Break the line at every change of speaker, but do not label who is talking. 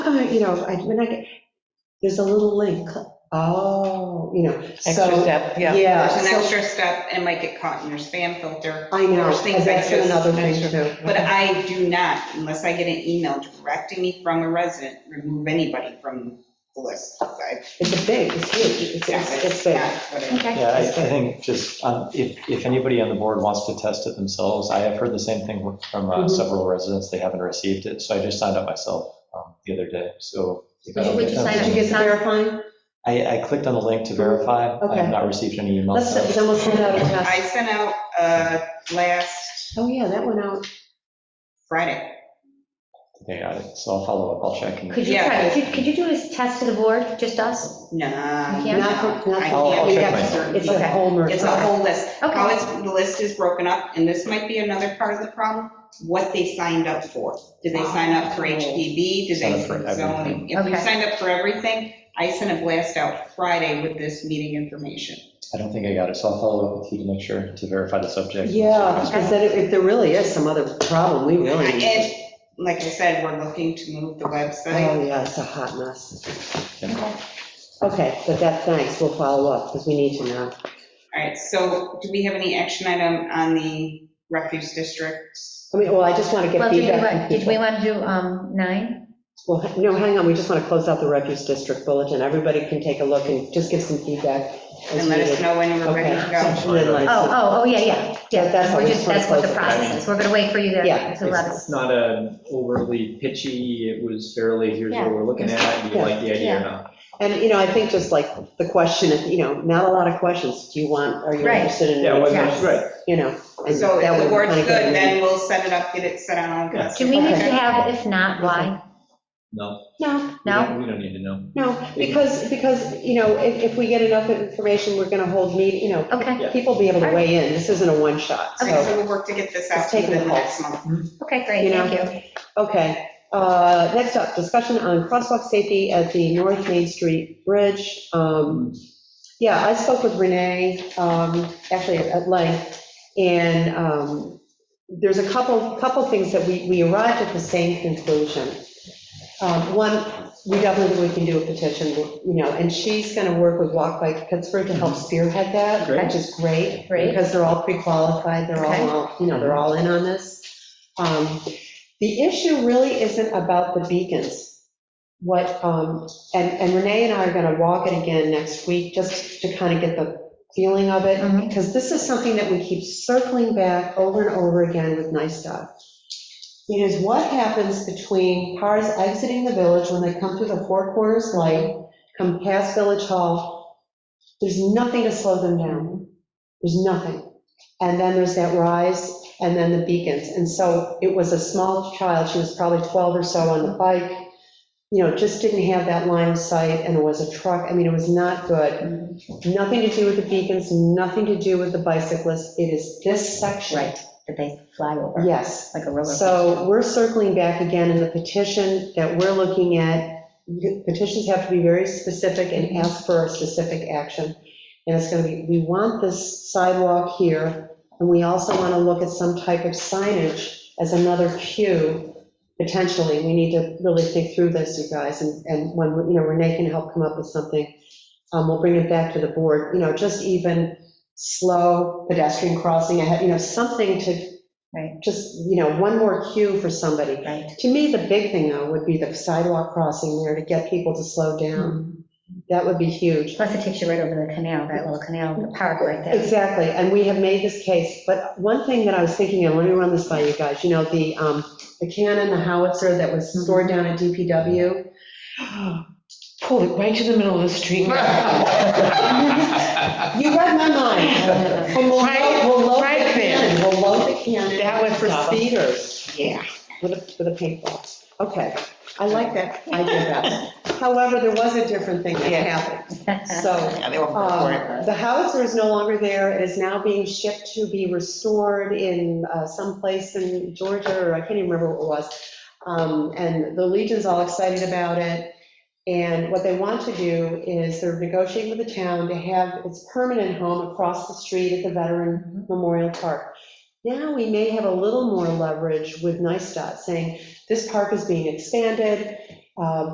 uh, you know, I, when I get, there's a little link, oh, you know,
Extra
so,
step, yeah.
yeah.
There's an
so-
extra step and might get caught in your spam filter.
I know,
There's things I
that's
just
another thing
mentioned.
too.
But I do not, unless I get an email directing me from a resident, remove anybody from the list. I-
It's a big, it's huge, it's, it's it's big.
not what I-
Okay.
Yeah, I I think just, um, if, if anybody on the board wants to test it themselves, I have heard the same thing from uh,
Mhm.
several residents, they haven't received it, so I just signed up myself um, the other day, so. if I don't
Would
get
you
them-
sign up? Did you get to verifying?
I, I clicked on the link to verify, I
Okay.
have not received any
Let's,
emails.
then we'll send out a
I
test.
sent out uh, last
Oh, yeah, that went out.
Friday.
They got it, so I'll follow up, I'll check. and-
Could you
Yeah.
try, could- could you do a test to the board, just us?
No. I
can't?
can't.
Not for- not for-
I'll- I'll
give
check
you
my-
certain
It's
people.
a whole merge.
It's a whole list. How
Okay,
Oh, it's, the list is broken up, and this might be another part of the problem, what they signed up for. Did they sign up for HPV? Did
Sign
they
up for
zoning? If you
Okay.
signed up for everything, I sent a blast out Friday with this meeting information.
I don't think I got it, so I'll follow up with you to make sure to verify the subject.
Yeah, because then if there really is some other problem, we really need to.
And like I said, we're looking to move the website.
Oh, yeah, it's a hot mess.
Yeah.
Okay, but that, thanks, we'll follow up, because we need to know.
All right, so do we have any action item on the refuse districts?
I mean, well, I just want to
well,
get
did we,
feedback.
want-
from
did we
people.
want to do um, nine?
Well, no, hang on, we just want to close out the refuse district bulletin. Everybody can take a look and just give some feedback. as
And let us
needed.
know when we're
Okay.
ready to go.
And then let
Oh,
us know.
oh, oh, yeah, yeah,
That- that's
yeah,
how
we're
we
just,
sort of
that's what the
close it.
process is, we're gonna wait for you to,
Yeah.
to let us.
It's not an overly pitchy, it was fairly, here's what we're looking at, do you like the idea or not?
And, you know, I think just like the question, if, you know, not a lot of questions. Do you want, are you
Right.
interested in?
Yeah, it
Yes.
wasn't, right.
You know. and
So
that
if
way
the
we
word's
kinda
good,
get a-
then we'll set it up, get it set on all.
Yeah.
Do we need to
Okay.
have, if not, why?
No,
No,
we
No?
don't- we don't need to know.
no, because, because, you know, if, if we get enough information, we're going to hold meet, you know,
Okay,
Yeah.
people be able to weigh in. This isn't a one-shot,
Okay,
so.
so we'll work to get this
It's
out
taking
within the
a
next month.
okay,
You
great,
know,
thank you.
Okay, uh, next up, discussion on crosswalk safety at the North Main Street Bridge. Um, Yeah, I spoke with Renee, um, actually at length, and um, there's a couple, couple things that we, we arrived at the same conclusion. Um, One, we definitely, think we can do a petition, you know, and she's going to work with Walk Bike Pittsburgh to help spearhead that,
Great.
which is great.
Great.
Because they're all pre-qualified, they're
Okay.
all, you know, they're all in on this. Um, The issue really isn't about the beacons. What, um, and and Renee and I are going to walk it again next week, just to kind of get the feeling of it,
Mhm.
because this is something that we keep circling back over and over again with NISTOD. It is what happens between cars exiting the village when they come through the four corners light, come past Village Hall. There's nothing to slow them down. There's nothing. And then there's that rise and then the beacons. And so it was a small child, she was probably 12 or so on the bike, you know, just didn't have that line of sight and it was a truck. I mean, it was not good. Nothing to do with the beacons, nothing to do with the bicyclists. It is this section.
that they fly over,
Yes.
like a roller.
So we're circling back again in the petition that we're looking at. Petitions have to be very specific and ask for a specific action. And it's going to be, we want this sidewalk here, and we also want to look at some type of signage as another cue, potentially. We need to really think through this, you guys, and, and when, you know, Renee can help come up with something. Um, we'll bring it back to the board, you know, just even slow pedestrian crossing ahead, you know, something to just, you know, one more cue for somebody.
Right.
To me, the big thing though would be the sidewalk crossing there to get people to slow down. That would be huge.
Plus it takes you right over the canal, that little canal, the park right there.
Exactly, and we have made this case, but one thing that I was thinking, and let me run this by you guys, you know, the, um, the cannon, the howitzer that was stored down at DPW. Pulled it right to the middle of the street. You read my mind. And we'll load, we'll load the
Try- try to finish.
cannon, we'll load the cannon.
That would
For
stop 'em.
speeders.
Yeah.
With a, with a paintball. Okay, I like that idea better. However, there was a different thing that
Yeah.
happened. So,
Yeah, they were
um, the howitzer is no longer there. It is now being shipped to be restored in uh, some place in Georgia, or I can't even remember what it was. Um, And the Legion's all excited about it. And what they want to do is they're negotiating with the town to have its permanent home across the street at the Veteran Memorial Park. Now we may have a little more leverage with NISTOT saying, this park is being expanded. um,